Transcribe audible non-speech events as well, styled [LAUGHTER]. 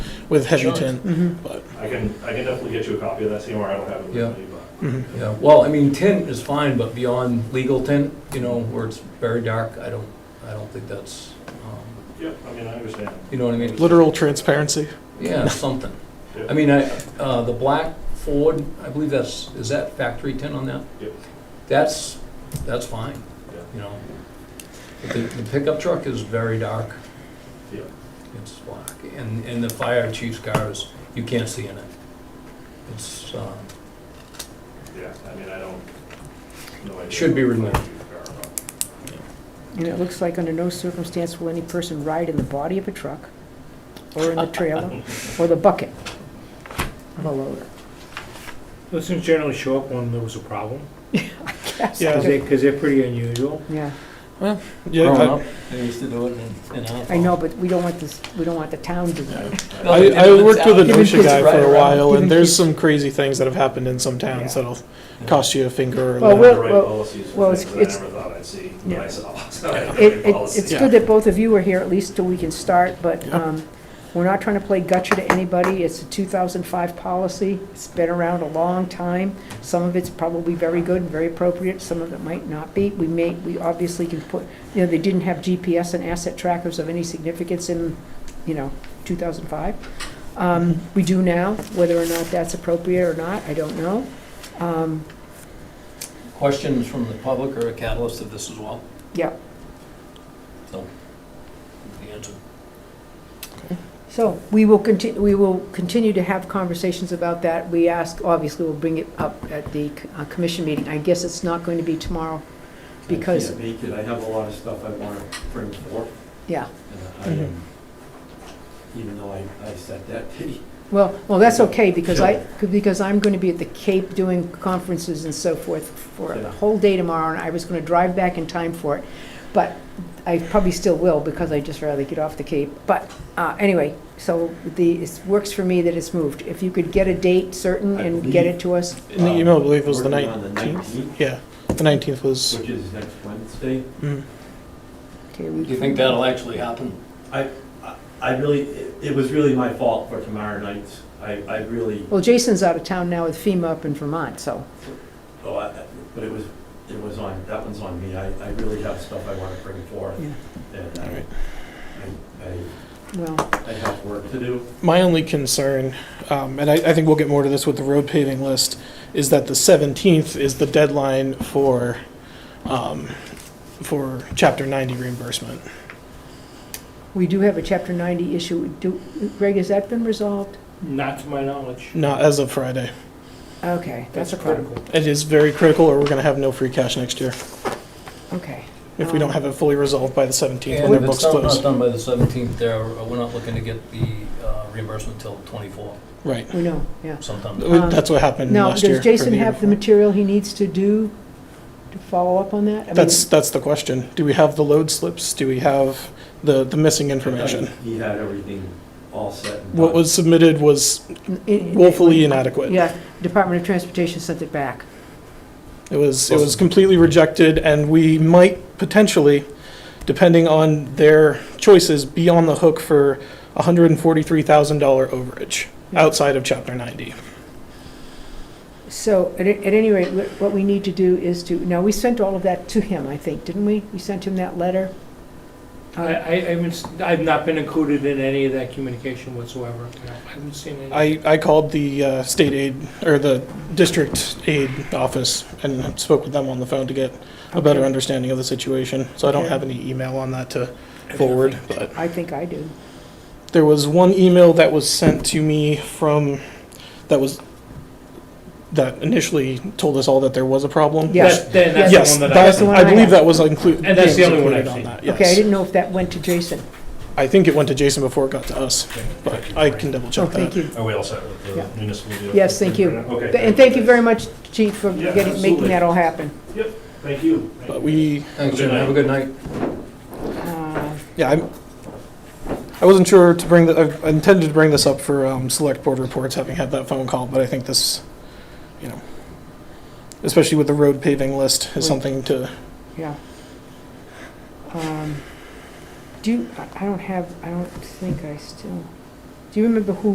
with heavy Sure. tin. I can, I can definitely get you a copy of that CMR, I don't have it Yeah. with me, but. Mhm. Yeah, well, I mean, tint is fine, but beyond legal tint, you know, where it's very dark, I don't, I don't think that's, um, Yep, I mean, I understand. you know what I mean? Literal transparency. Yeah, something. Yeah. I mean, I, uh, the black Ford, I believe that's, is that factory tint on that? Yep. That's, that's fine, Yeah. you know. But The the pickup truck is very dark. Yeah. It's black, and, and the fire chief's car is, you can't see in it. It's, um, Yeah, I mean, I don't, no idea. Should be removed. And it looks like under no circumstance will any person ride in the body of a truck, or in the trailer, or the bucket of a loader. Those things generally show up when there was [LAUGHS] a problem, because Yeah, they're, because they're pretty unusual. Yeah, yeah. growing I- up, they used to do it in, in I know, but we don't want this, we don't want the town doing it. No, I, they I do it worked with a south. Even OSHA kids guy ride for a around. while, Even and there's [LAUGHS] kids- some crazy things that have happened in some towns Yeah. that'll cost you a finger or Well, whatever. The right well, policies well, were things that I it's- never thought I'd see, Yeah. but I [LAUGHS] saw. So I had the It, right it- policies. it's good that both of you are here, at least till we can start, but Yeah. um, we're not trying to play gotcha to anybody. It's a 2005 policy. It's been around a long time. Some of it's probably very good and very appropriate, some of it might not be. We may, we obviously can put, you know, they didn't have GPS and asset trackers of any significance in, you know, 2005. Um, We do now, whether or not that's appropriate or not, I don't know. Um, Questions from the public are a catalyst of this as well, Yeah, so, the answer. So we will continue, we will continue to have conversations about that. We ask, obviously, we'll bring it up at the uh, commission meeting. I guess it's not going to be tomorrow because, I can't make it, I have a lot of stuff I want to bring forth, yeah. Mm-hmm. and I am, even though I, I set that date. Well, well, that's okay because I, because I'm going to be at the Cape doing conferences and so forth for the Yeah. whole day tomorrow and I was going to drive back in time for it. But I probably still will because I just rather get off the Cape. But uh, anyway, so the, it works for me that it's moved. If you could get a date certain I and get believe- it to us, In the email, I believe, was the um, Working on the 19th. 19th, Yeah, the 19th was. which is next Wednesday. mm. okay? we Do you think that'll actually happen? I- I really, it it was really my fault for tomorrow night, I, I really, Well, Jason's out of town now with FEMA up in Vermont, so, oh, I- I- but it was, it was on, that one's on me, I, I really have stuff I want to bring forth, yeah, and All right. I, I, well, I have work to do. My only concern, um, and I, I think we'll get more to this with the road paving list, is that the 17th is the deadline for, um, for Chapter 90 reimbursement. we do have a Chapter 90 issue. Do, Greg, has that been resolved? Not to my knowledge. Not as of Friday. Okay, that's a problem. It is very critical, or we're going to have no free cash next year Okay. if we don't have it fully resolved by the 17th when And their if it's books not not close. done by the 17th, there, we're not looking to get the uh, reimbursement till 24 Right. We know, yeah. sometime. We- That's what happened Now, last year. does or Jason the year have the before. material he needs to do to follow up on that? I mean, That's, that's the question. Do we have the load slips? Do we have the, the missing information? He had everything all set and What done. was submitted was n- it- woefully inadequate. Yeah, Department of Transportation sent it back. It was, it was completely rejected, and we might potentially, depending on their choices, be on the hook for a hundred and forty-three thousand dollar overage Yeah. outside of chapter ninety. So at, a- at any rate, wh- what we need to do is to, now, we sent all of that to him, I think, didn't we? We sent him that letter? Uh, I, I haven't, s- I've not been included in any of that communication whatsoever. No, I haven't seen any. I, I called the uh, state aid, or the district aid office and spoke with them on the phone to get a better Okay. understanding of the situation, so I don't Okay. have any email on that to forward, but. I think I do. There was one email that was sent to me from, that was, that initially told us all that there was a problem. Yeah. That- Then that's Yes, the one that I. that, That's the one I I believe have. that was included. And that's the only one I've seen. Okay, I didn't know if that went to Jason. I think it went to Jason before it got to us, but I can double Oh, check thank that. you. Are we all set with Yeah. the municipal? deal? Yes, thank you. Okay. And thank you very much, Chief, for Yeah, getting, making absolutely. that all happen. Thank you. Thank But you. we, Thanks, Jim, have a good night. Uh, yeah, I'm, I wasn't sure to bring, the- I intended to bring this up for um, select board reports, having had that phone call, but I think this, you know, especially with the road paving list, is something to Yeah. Um, Do, you- I I don't have, I don't think I still, do you remember who